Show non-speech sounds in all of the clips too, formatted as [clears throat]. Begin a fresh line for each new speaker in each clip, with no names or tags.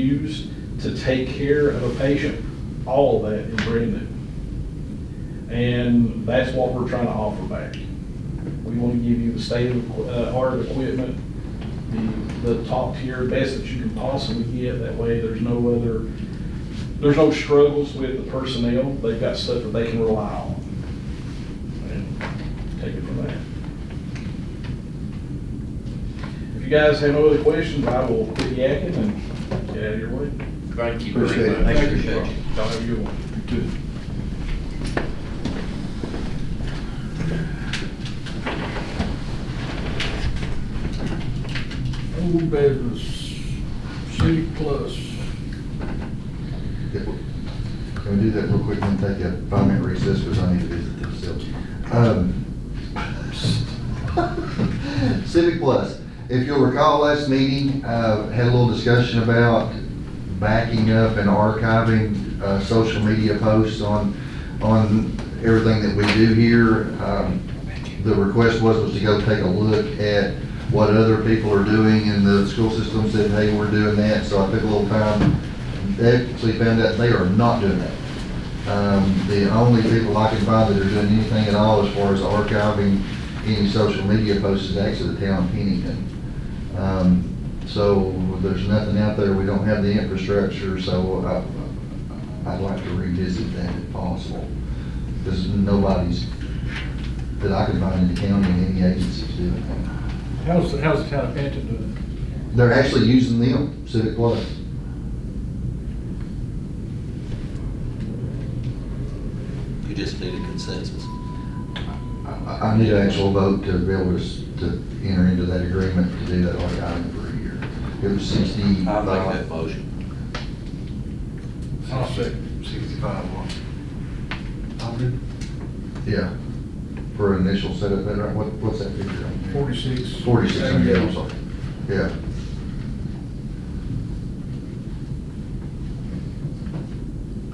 use to take care of a patient, all of that is brand new. And that's what we're trying to offer back. We want to give you the state of, equi- uh, art of equipment, the, the top tier, best that you can possibly get. That way, there's no other, there's no struggles with the personnel. They've got stuff that they can rely on. And Take it from there. If you guys have no other questions, I will quit yakking and get out of your way.
Thank you
Appreciate
very
it.
much.
Thank you.
Y'all have a good one.
Old business, city plus.
Yeah, Can we do that real quick and take a five-minute recess, because I need to visit the facility? Um, [laughs] Civic Plus, if you'll recall last meeting, uh, had a little discussion about backing up and archiving, uh, social media posts on, on everything that we do here. Um, the request was, was to go take a look at what other people are doing in the school system, said, hey, we're doing that, so I took a little time. They actually found out they are not doing that. Um, the only people I can find that are doing anything at all as far as archiving any social media posts is actually the town of Pennington. Um, so there's nothing out there, we don't have the infrastructure, so I, I'd like to revisit that if possible. Because nobody's that I could find in the county and any agencies doing that.
How's, the how's the town of Canton doing?
They're actually using them, Civic Plus.
You just need a consensus.
I, I need an actual vote to be able to, s- to enter into that agreement to do that like I did for a year. It was sixty.
I make that motion.
I'll second.
Sixty-five what? Yeah, for initial setup, and right, what, what's that figure? on there?
Forty-six.
Forty-six hundred, I'm sorry. Yeah.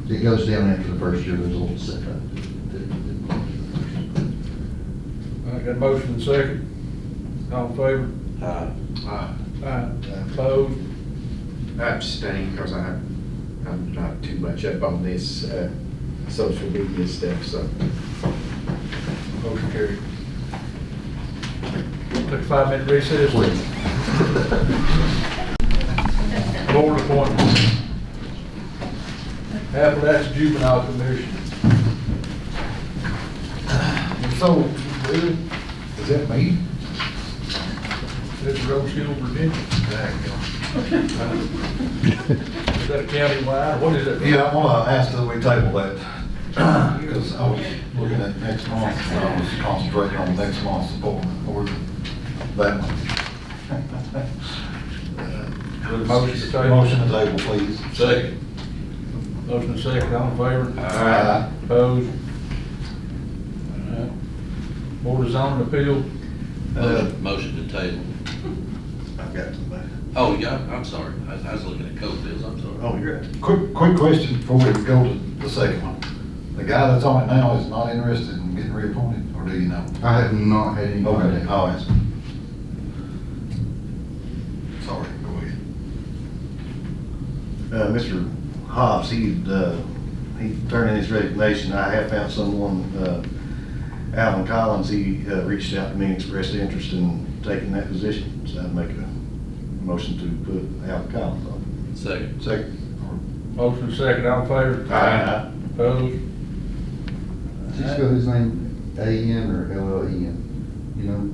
It goes down after the first year, there's a little setback.
All right, got a motion and second. All in favor?
Aye.
Uh,
Aye. Opposed?
I abstain because I, I'm not too much up on this, uh, social media stuff, so.
Motion carried. Took a five-minute recess.
[laughs] Please.
Board appointments. Appalachian Juvenile Commission.
So, is that me?
That's Rose Hill, Virginia. Is that a countywide? What is that?
Yeah, I want to ask that we table that, [clears throat] because I was looking at next month, and I was concentrating on next month's appointment, or that one.
Motion to table.
Motion to table, please.
Second.
Motion and second, all in favor?
Aye.
Opposed? All right. Board of zoning appeal,
Uh,
Motion to table.
I've got somebody.
Oh, yeah, I'm sorry. I was- I was looking at Coke bills, I'm sorry.
Oh, you're. Quick, quick question before we go to the second one. The guy that's on it now is not interested in getting reappointed, or do you know?
I have not had any
Okay,
contact.
I'll ask. Sorry, go ahead.
Uh, Mr. Hobbs, he, uh, he turned in his resignation. I have found someone, uh, Alvin Collins, he, uh, reached out to me and expressed interest in taking that position. So I'd make a motion to put Alvin Collins on.
Second.
Second.
motion and second, all in favor?
Aye.
Opposed?
Did you spell his name A N or L L E N? You know,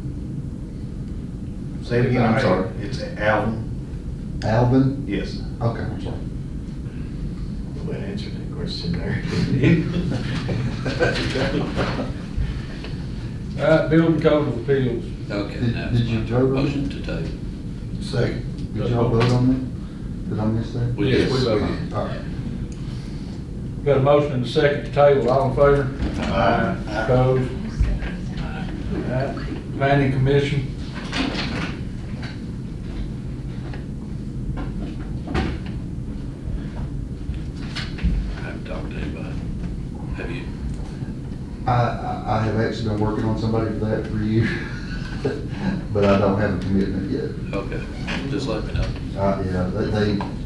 Say it again, I'm sorry. It's Alvin,
Alvin?
yes.
Okay, I'm sorry.
Well, answer that question there. [laughs]
All right, building code of appeals.
Okay.
Did-
now
did
it's
you
mine.
vote on
Motion to table.
Second.
Did y'all vote on that? Did I miss that?
We
Yes,
did.
we vote.
All right.
Got a motion and a second to table, all in favor?
Aye.
Opposed? All right. Planning commission,
I haven't talked to anybody. Have you?
I, I, I have actually been working on somebody for that for years, [laughs] but I don't have a commitment yet.
Okay. Just let me know.
Uh, yeah, they, they,